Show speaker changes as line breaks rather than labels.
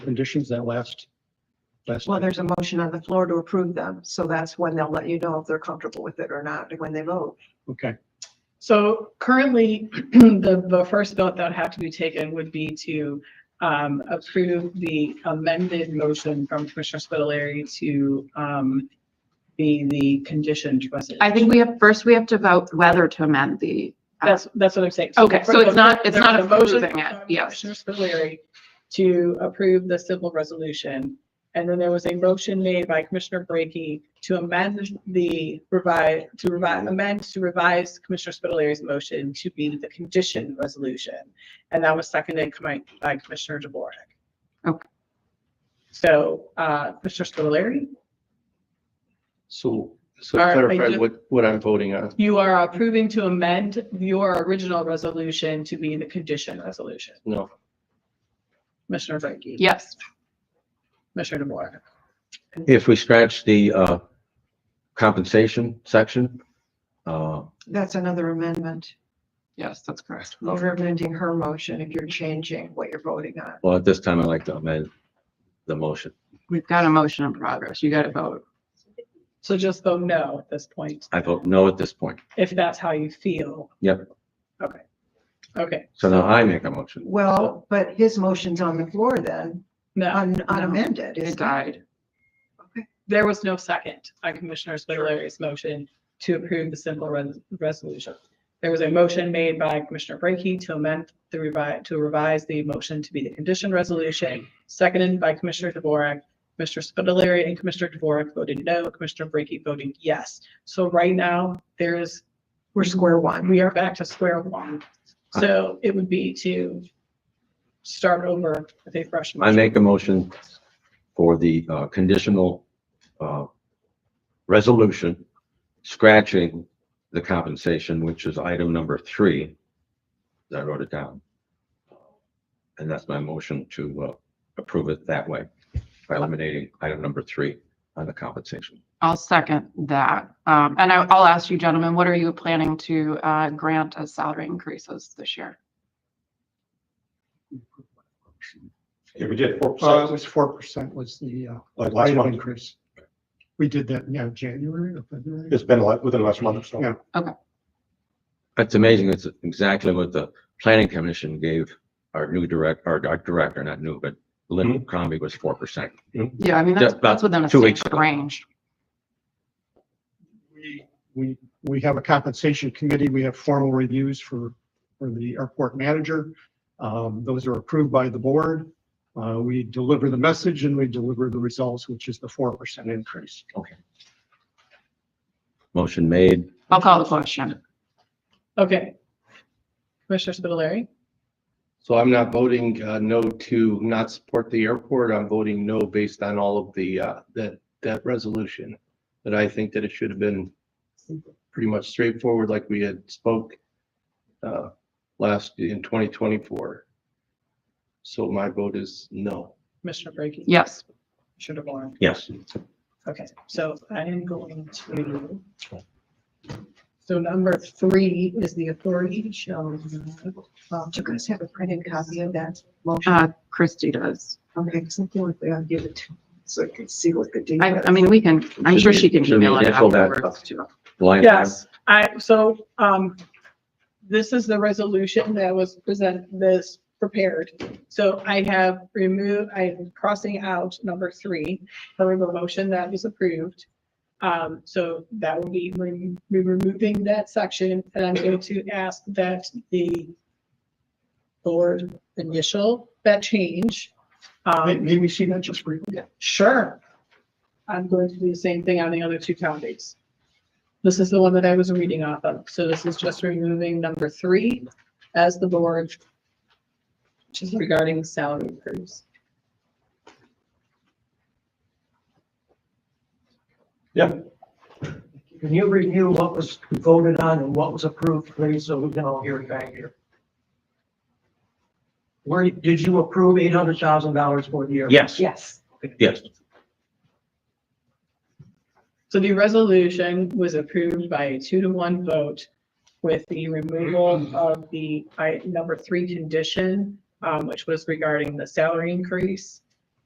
conditions that last? last
Well,
night?
there's a motion on the floor to approve them, so that's when they'll let you know if they're comfortable with it or not, when they vote.
Okay,
So currently, the, the first vote that would have to be taken would be to um, approve the amended motion from Commissioner Spitaleri to um, be the conditioned resident.
I think we have, first we have to vote whether to amend the. uh,
That's, that's what I'm saying.
Okay, so it's not- it's not
There was a motion
approving it,
from
yes.
Commissioner Spitaleri to approve the civil resolution. And then there was a motion made by Commissioner Brackey to amend the revise, to revise, amend to revise Commissioner Spitaleri's motion to be the condition resolution. And that was seconded commi- by Commissioner DeWarke.
Okay.
So, uh, Commissioner Spitaleri,
So, so
All right, I
clarify
do-
what, what I'm voting on.
you are approving to amend your original resolution to be the condition resolution.
No,
Commissioner Brackey.
Yes,
Commissioner DeWarke.
If we scratch the uh, compensation section, uh,
That's another amendment.
yes, that's correct.
You're amending her motion if you're changing what you're voting on.
well, at this time, I'd like to amend the motion.
We've got a motion in progress. You got to vote.
So just vote no at this point,
I vote no at this point.
if that's how you feel.
Yep.
Okay. Okay,
So now I make a motion.
Well, but his motion's on the floor then,
no,
un- unamended.
It
isn't
died.
there was no second on Commissioner Spitaler's motion to approve the simple res- resolution. There was a motion made by Commissioner Brackey to amend the revise, to revise the motion to be the condition resolution, seconded by Commissioner DeWarke. Commissioner Spitaleri and Commissioner DeWarke voted no, Commissioner Brackey voted yes. So right now, there is
We're square one.
we are back to square one. So it would be to start over with a fresh.
I
motion.
make a motion for the uh, conditional uh, resolution, scratching the compensation, which is item number three. I wrote it down. And that's my motion to uh, approve it that way by eliminating item number three on the compensation.
I'll second that. Um, and I, I'll ask you gentlemen, what are you planning to, uh, grant as salary increases this year?
Yeah, we did
Uh,
four
it
percent.
was four percent was the uh,
Like Oh, last
item
month.
increase. We did that, yeah, January or February.
It's been like within the last month or so.
Yeah.
That's amazing. That's exactly what the planning commission gave our new direct, our our director, not new, but Lynn Crombie was four percent.
Yeah, I mean, that's,
Just about
that's within a
two weeks
safe
ago.
range.
We, we, we have a compensation committee. We have formal reviews for, for the airport manager. Um, those are approved by the board. Uh, we deliver the message and we deliver the results, which is the four percent increase.
Motion made.
I'll call the question.
Okay. Commissioner Spitaleri,
so I'm not voting uh, no to not support the airport. I'm voting no based on all of the, uh, that, that resolution. That I think that it should have been pretty much straightforward like we had spoke uh, last in 2024. So my vote is no.
Commissioner Brackey.
Yes,
Commissioner DeWarke.
Yes.
Okay, so I am going to. So number three is the authority shall. uh,
Well, do you guys have a printed copy of that motion?
uh, Christie does.
Okay, something like that, I'll give it to, so I can see what the. deal
I,
is.
I mean, we can, I'm
Should
sure
we-
she can
should we
email it
initial that?
afterwards too.
Line item.
Yes, I, so, um, this is the resolution that was present, this prepared. So I have removed, I'm crossing out number three, for the motion that was approved. Um, so that will be re- be removing that section, and I'm going to ask that the board initial that change.
May,
Um,
may we see that just briefly?
Sure. I'm going to do the same thing on the other two town dates. This is the one that I was reading off of, so this is just removing number three as the board. Which is regarding salary increase.
Can you review what was voted on and what was approved, please, so we can all hear it back here? Where, did you approve eight hundred thousand dollars for the year?
Yes,
Yes.
yes.
So the resolution was approved by a two to one vote with the removal of the I, number three condition, um, which was regarding the salary increase.